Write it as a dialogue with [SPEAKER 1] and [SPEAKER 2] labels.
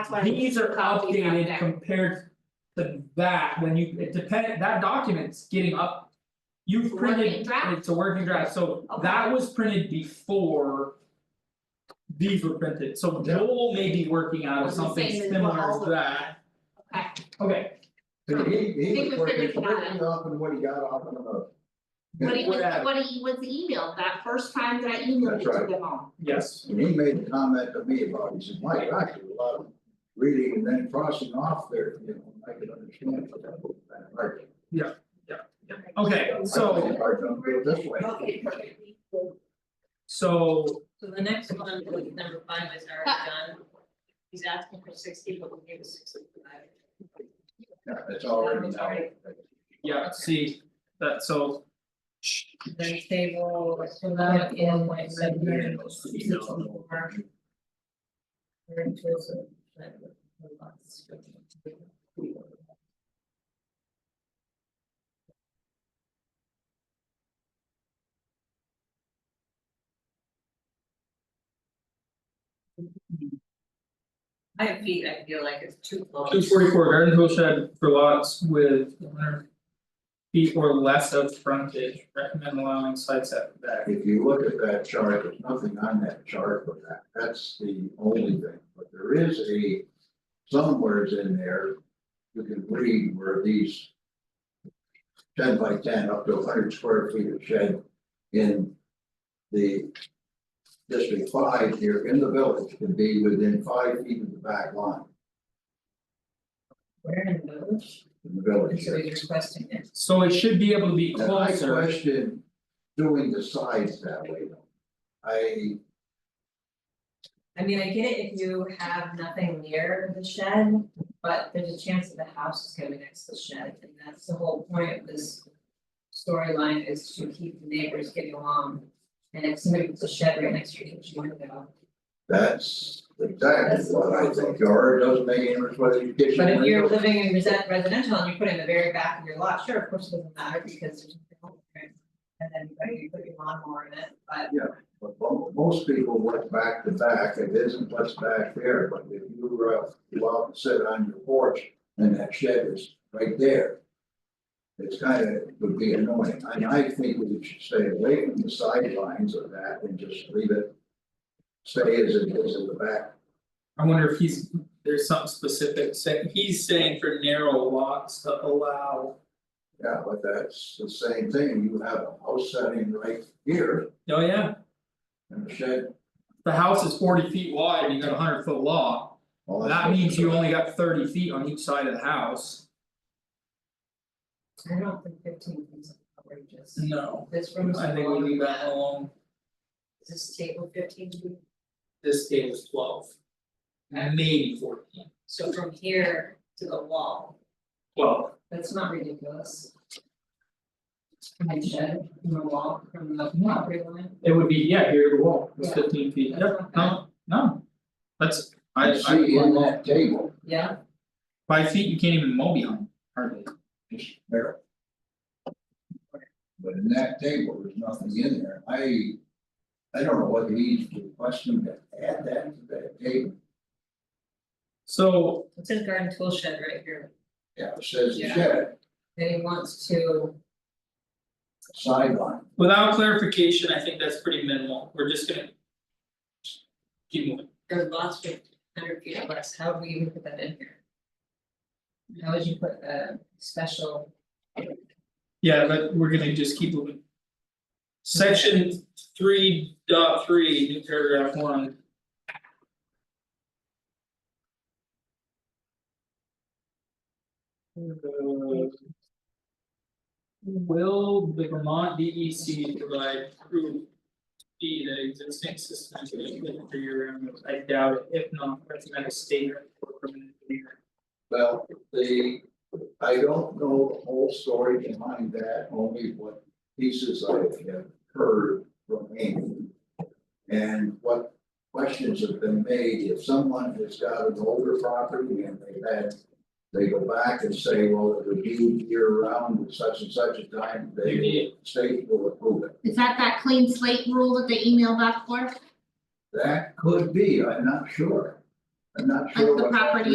[SPEAKER 1] That's why.
[SPEAKER 2] These are
[SPEAKER 1] copies on
[SPEAKER 2] updated
[SPEAKER 1] deck.
[SPEAKER 2] compared to that, when you, it depend, that document's getting up.
[SPEAKER 1] It's
[SPEAKER 2] You've
[SPEAKER 1] a working
[SPEAKER 2] printed,
[SPEAKER 1] draft.
[SPEAKER 2] it's a working draft, so
[SPEAKER 1] Okay.
[SPEAKER 2] that was printed before. These were printed, so
[SPEAKER 3] Yeah.
[SPEAKER 2] Joel may be working out of
[SPEAKER 1] It's the
[SPEAKER 2] something
[SPEAKER 1] same as
[SPEAKER 2] similar
[SPEAKER 1] what all
[SPEAKER 2] to
[SPEAKER 1] of
[SPEAKER 2] that,
[SPEAKER 1] Okay,
[SPEAKER 2] okay,
[SPEAKER 3] So he
[SPEAKER 1] I
[SPEAKER 3] he
[SPEAKER 1] think
[SPEAKER 3] was
[SPEAKER 1] we figured it
[SPEAKER 3] working,
[SPEAKER 1] out.
[SPEAKER 3] working off and what he got off of. the-
[SPEAKER 1] what he was,
[SPEAKER 3] Whatever.
[SPEAKER 1] what he was emailed, that first time that I emailed
[SPEAKER 3] That's
[SPEAKER 1] it to
[SPEAKER 3] right.
[SPEAKER 1] them all.
[SPEAKER 2] yes.
[SPEAKER 3] And he made a comment to me about, it. he said, Mike, I did a lot of reading and then crossing off there, you know, I could understand. what that was about, right?
[SPEAKER 2] Okay,
[SPEAKER 3] I
[SPEAKER 2] so
[SPEAKER 3] think I don't feel this way.
[SPEAKER 2] so
[SPEAKER 4] So the next one, like, number five is already done. He's asking for sixty, but we'll give us sixty-five.
[SPEAKER 3] Yeah, It's already
[SPEAKER 4] It's
[SPEAKER 3] now.
[SPEAKER 4] already-
[SPEAKER 2] yeah, see that so.
[SPEAKER 4] Then table, so that is like seven hundred and sixty-four. Very inclusive, but lots of- My feet, I feel like it's too close.
[SPEAKER 2] Two forty four garden tool shed for lots with one hundred. Feet or less of frontage, recommend allowing side setback.
[SPEAKER 3] If you look at that chart, there's nothing on that chart for that, that's the only thing, but there is a. Somewhere's in there, you can read where these. Ten by ten up to hundred square feet of shed in the. District five here in the village can be within five feet of the back line
[SPEAKER 4] Where in the village?
[SPEAKER 3] in the village.
[SPEAKER 4] So he's requesting it.
[SPEAKER 2] So it should be able to be
[SPEAKER 3] And I
[SPEAKER 2] closer,
[SPEAKER 3] question doing the sides that way though. I,
[SPEAKER 4] I mean, I get it if you have nothing near the shed, but there's a chance that the house is gonna be next to the shed, and that's the whole point of this. Storyline is to keep the neighbors getting along, and if somebody puts a shed right next to your kitchen window.
[SPEAKER 3] That's exactly what I think, or it doesn't make any difference whether you kitchen
[SPEAKER 4] But if you're
[SPEAKER 3] window.
[SPEAKER 4] living in resi- residential and you put it in the very back of your lot, sure, of course, it doesn't matter because there's nothing home there. And then you put- you put your lawnmower in it, but
[SPEAKER 3] But mo- most people went back to back, it isn't what's back there, but if you were, out- you out and sit on your porch and that shed is right there. It's kind of, would be annoying, and I think we should stay away from the sidelines of that and just leave it. Stay as it is in the back,
[SPEAKER 2] I wonder if he's, there's something specific, say, he's saying for narrow lots to allow.
[SPEAKER 3] yeah, but that's the same thing, you have a house setting right here
[SPEAKER 2] Oh, yeah,
[SPEAKER 3] and a shed.
[SPEAKER 2] the house is forty feet wide and you got a hundred foot lot,
[SPEAKER 3] all that's-
[SPEAKER 2] that means you only got thirty feet on each side of the house.
[SPEAKER 4] I don't think fifteen is outrageous.
[SPEAKER 2] No,
[SPEAKER 4] This room is
[SPEAKER 2] I think we
[SPEAKER 4] smaller than
[SPEAKER 2] leave that alone,
[SPEAKER 4] Is this table fifteen feet?
[SPEAKER 2] this table's twelve. Maybe fourteen.
[SPEAKER 4] So from here to the wall,
[SPEAKER 2] Well,
[SPEAKER 4] that's not ridiculous. My shed from the wall, from the property line.
[SPEAKER 2] it would be, yeah, here to the wall, it's fifteen feet,
[SPEAKER 4] Yeah.
[SPEAKER 2] yeah, no, no. That's, I
[SPEAKER 3] I
[SPEAKER 2] I
[SPEAKER 3] see in that table,
[SPEAKER 4] Yeah,
[SPEAKER 2] Five feet, you can't even mow behind, hardly.
[SPEAKER 3] just there. But in that table, there's nothing in there, I, I don't know whether he's requesting to add that to that table.
[SPEAKER 2] So,
[SPEAKER 4] it says garden tool shed right here,
[SPEAKER 3] Yeah, it says the
[SPEAKER 4] Yeah.
[SPEAKER 3] shed,
[SPEAKER 4] and he wants to,
[SPEAKER 3] sideline,
[SPEAKER 2] without clarification, I think that's pretty minimal, we're just gonna. Keep moving,
[SPEAKER 4] or lots with hundred feet or less, how do we even put that in here? How would you put a special,
[SPEAKER 2] yeah, but we're gonna just keep moving. Section three dot three, new paragraph one. Uh, Will the Vermont D E C provide proof? D that existing system is good for your animals, I doubt it, if not, recommend a statement or from an engineer.
[SPEAKER 3] well, the, I don't know the whole story behind that, only what pieces I have heard from Amy. And what questions have been made, if someone has got an older property and they've had. They go back and say, well, it would be year round at such and such a time, they will, state will approve it.
[SPEAKER 1] Is that that clean slate rule that they emailed back for?
[SPEAKER 3] That could be, I'm not sure.
[SPEAKER 5] I'm not
[SPEAKER 3] like
[SPEAKER 5] sure
[SPEAKER 3] the
[SPEAKER 5] what.
[SPEAKER 3] property